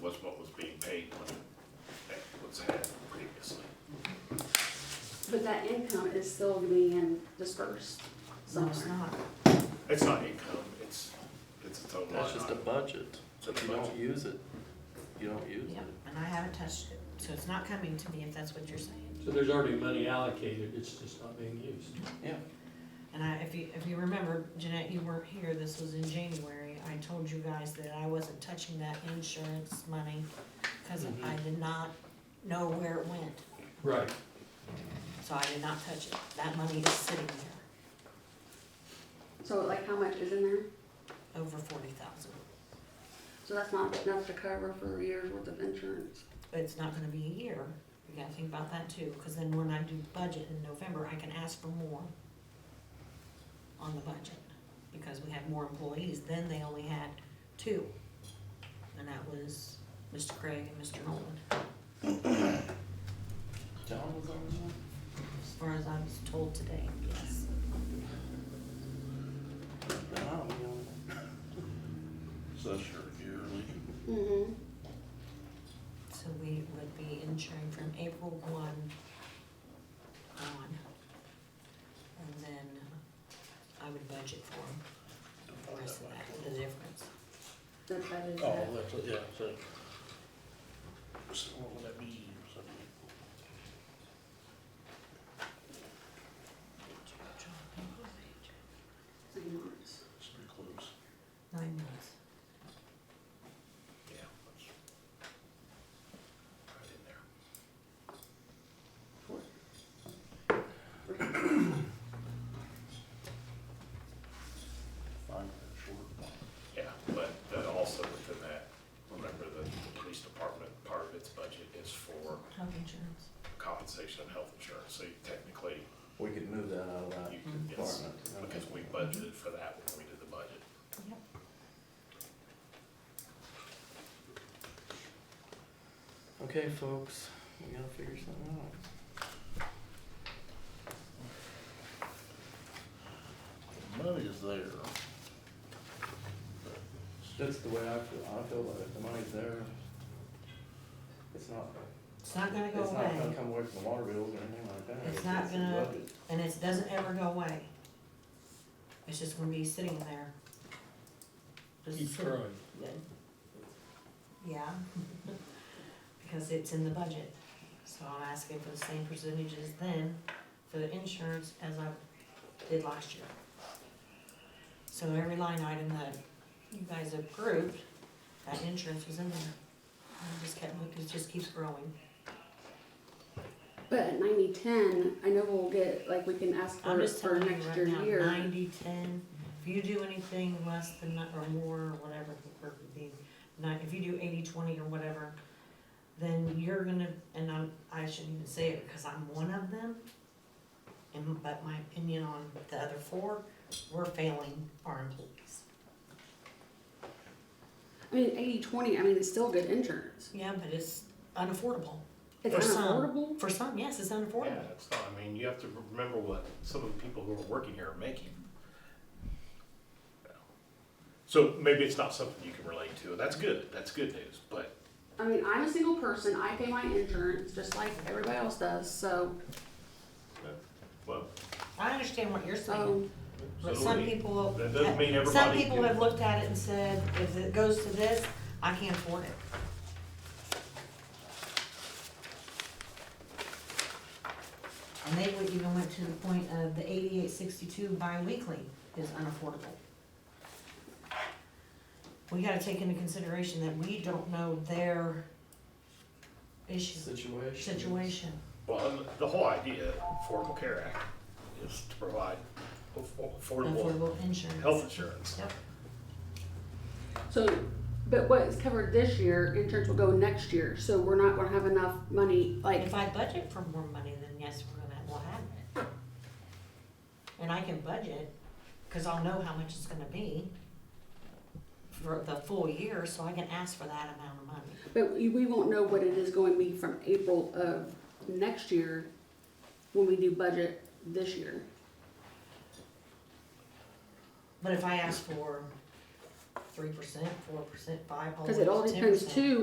was what was being paid when that was had previously. But that income is still being dispersed No, it's somewhere. not. It's not income, it's, it's a total line That's just a item. budget. It's a If you don't budget. use it, you don't use Yep, it. and I haven't touched it, so it's not coming to me if that's what you're saying. So there's already money allocated, it's just not being used. Yeah. And I, if you, if you remember, Jeanette, you weren't here, this was in January, I told you guys that I wasn't touching that insurance money because I did not know where it went, Right. so I did not touch it. That money is sitting there, So like how much is in there? over forty thousand, So that's not enough to cover for a year's worth of insurance. but it's not gonna be a year. You gotta think about that too, because then when I do budget in November, I can ask for more on the budget, because we have more employees, then they only had two. And that was Mr. Craig and Mr. Nolan. John was on that? As far as I was told today, yes. No, I don't know. So that's your yearly. Mm-hmm. So we would be insuring from April one on. And then I would budget for 'em, the rest of that, the difference. That, that is Oh, it. that's, yeah, so. So what would that be, something? Nine months. It's pretty close. Nine months. Yeah. that's Right in there. Four. Five minutes short. Yeah, but that also within that, remember that the police department, part of its budget is for Health insurance. compensation and health insurance, so you technically, We could move that out of that you could, yes, department. okay. because we budgeted for that when we did the budget. Yep. Okay, folks, we gotta figure something out. Money is there. That's the way I feel, I feel about it, the money's there. It's not, It's not gonna go it's not gonna away, come away from the water bills or anything like that. It's not in gonna- budget. and it doesn't ever go away. It's just gonna be sitting there. Just Keep sit- throwing. Yeah. Because it's in the budget, so I'm asking for the same percentages then for the insurance as I did last year. So every line item that you guys approved, that insurance was in there. And it just kept, it just keeps growing. But at ninety, ten, I know we'll get, like, we can ask I'm for, just for telling you next right year now, year. ninety, ten, if you do anything less than, that or more, or whatever, or the, nine, if you do eighty, twenty, or whatever, then you're gonna, and I'm, I shouldn't even say it, because I'm one of them, and, but my opinion on the other four, we're failing our employees. I mean, eighty, twenty, I mean, it's still good insurance. Yeah, but it's unaffordable, It's For some. unaffordable. for some, yes, it's Yeah, unaffordable, it's not, I mean, you have to remember what some of the people who are working here are making. So maybe it's not something you can relate to, that's good, that's good news, but I mean, I'm a single person, I pay my insurance just like everybody else does, so, Well, I understand what you're saying, um, but so some we- people. that doesn't mean Some everybody people can- have looked at it and said, if it goes to this, I can't afford it. And they would even went to the point of the eighty-eight sixty-two bi-weekly is unaffordable. We gotta take into consideration that we don't know their issue, Situation. situation. Well, and the whole idea of Affordable Care Act is to provide affo- affordable Affordable insurance. health insurance. Yep. So, but what is covered this year, insurance will go next year, so we're not gonna have enough money, like, If I budget for more money, then yes, we're gonna, we'll have it. And I can budget, cause I'll know how much it's gonna be for the full year, so I can ask for that amount of money. but we we won't know what it is going to be from April of next year when we do budget this year. But if I ask for three percent, four percent, five, all the Cause way it to all 10%. depends too